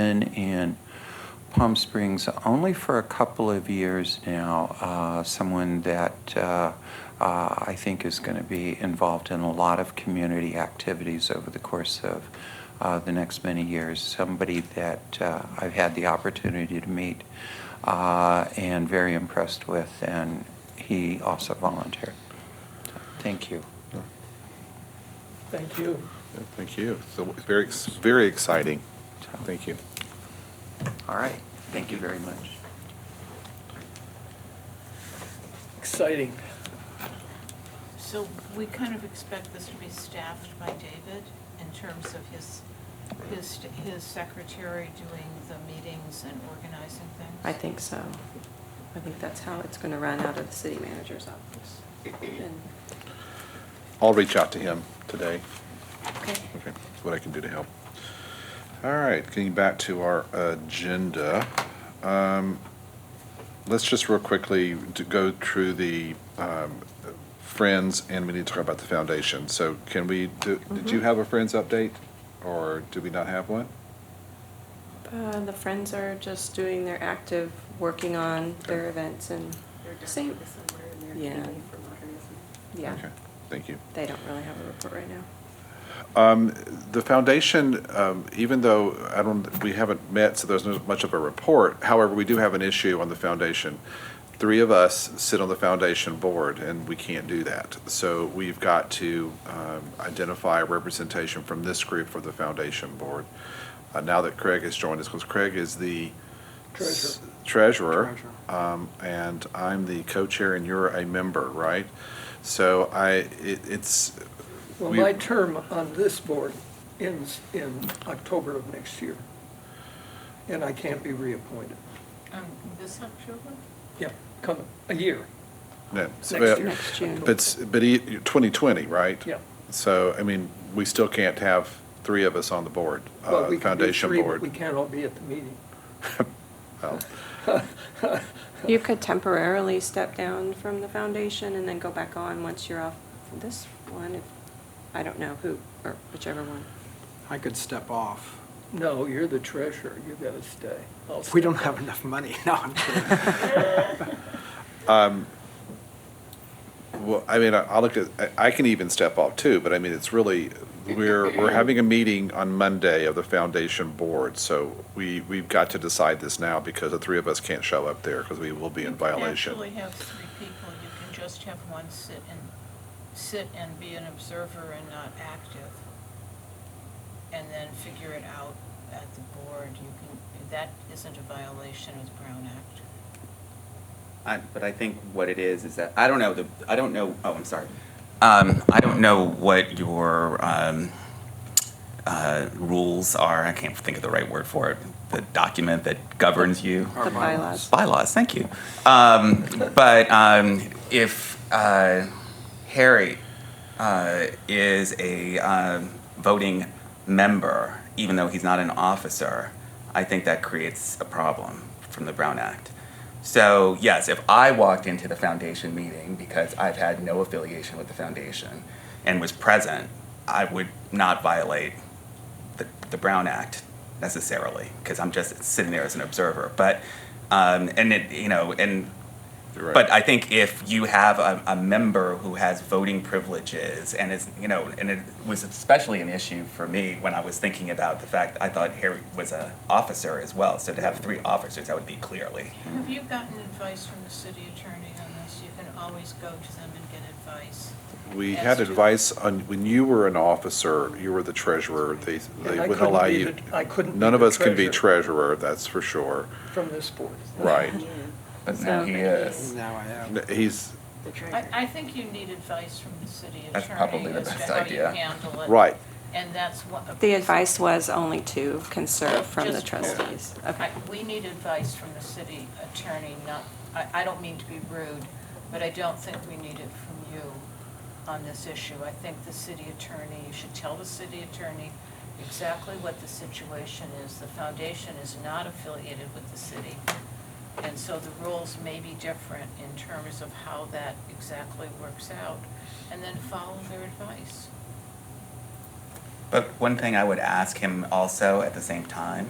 been in Palm Springs only for a couple of years now. Uh, someone that uh, uh, I think is going to be involved in a lot of community activities over the course of uh, the next many years. Somebody that uh, I've had the opportunity to meet uh, and very impressed with, and he also volunteered. Thank you. Thank you. Yeah, Thank you. So very, ex- very exciting. Thank you. All right. Thank you very much. Exciting. So we kind of expect this to be staffed by David in terms of his, his, his secretary doing the meetings and organizing things? I think so. I think that's how it's going to run out of the city manager's office. And- I'll reach out to him today. Okay. Okay, that's what I can do to help. All right, getting back to our agenda. um, Let's just real quickly to go through the um, Friends, and we need to talk about the foundation. So can we, do- did Mm-hmm. you have a Friends update, or do we not have one? Uh, The Friends are just doing their active, working on their events and same, Yeah. community yeah, Okay, Thank you. they don't really have a report right now. The foundation, um, even though I don't, we haven't met, so there's not much of a report, however, we do have an issue on the foundation. Three of us sit on the foundation board, and we can't do that. So we've got to um, identify representation from this group for the foundation board. Uh, Now that Craig has joined us, because Craig is the s- treasurer, um, and I'm the co-chair, and you're a member, right? So I, it- it's, Well, We- my term on this board ends in October of next year, and I can't be reappointed. Um, this October? Yeah, come, a year, no. so- Next year. Next June. But, s- but e- 2020, right? yeah. So, I mean, we still can't have three of us on the board, Well, uh, we can do foundation three, but board. We can't all be at the meeting. You could temporarily step down from the foundation and then go back on once you're off this one. if- I don't know who, or whichever one. I could step off. No, you're the treasurer, you gotta stay. I'll We stay. don't have enough money. No, I'm kidding. Well, I mean, I- I'll look at, I- I can even step off too, but I mean, it's really, we're, we're having a meeting on Monday of the foundation board. So we, we've got to decide this now because the three of us can't show up there because we will be in violation. You can actually have three people, you can just have one sit and, sit and be an observer and not active. And then figure it out at the board, you can, that isn't a violation of the Brown Act. I, but I think what it is is that I don't know the I don't know. Oh, I'm sorry. Um, I don't know what your um, uh, rules are. I can't think of the right word for it. The document that governs you. The bylaws. Bylaws. Thank you. Um, but um, if uh, Harry uh, is a um, voting member, even though he's not an officer, I think that creates a problem from the Brown Act. So, yes, if I walked into the foundation meeting because I've had no affiliation with the foundation and was present, I would not violate the, the Brown Act necessarily because I'm just sitting there as an observer. But, um, and it, you know, and You're right. but I think if you have a, a member who has voting privileges and is, you know, and it was especially an issue for me when I was thinking about the fact I thought Harry was an officer as well. So to have three officers, that would be clearly. Have you gotten advice from the city attorney on this? You can always go to them and get advice. We Yes, had true. advice on, when you were an officer, you were the treasurer, they, they And I wouldn't couldn't allow be you. the- I couldn't be None of the us can be treasurer, that's for sure, From this board. right. But now he uh, is. Now I am. N- He's, I, I think you need advice from the city That's attorney probably the as to best how you idea. handle it. right, And that's what. The advice was only to conserve from the Just- trustees. Okay. I- We need advice from the city attorney, not, I, I don't mean to be rude, but I don't think we need it from you on this issue. I think the city attorney, you should tell the city attorney exactly what the situation is. The foundation is not affiliated with the city. And so the rules may be different in terms of how that exactly works out. And then follow their advice. But one thing I would ask him also at the same time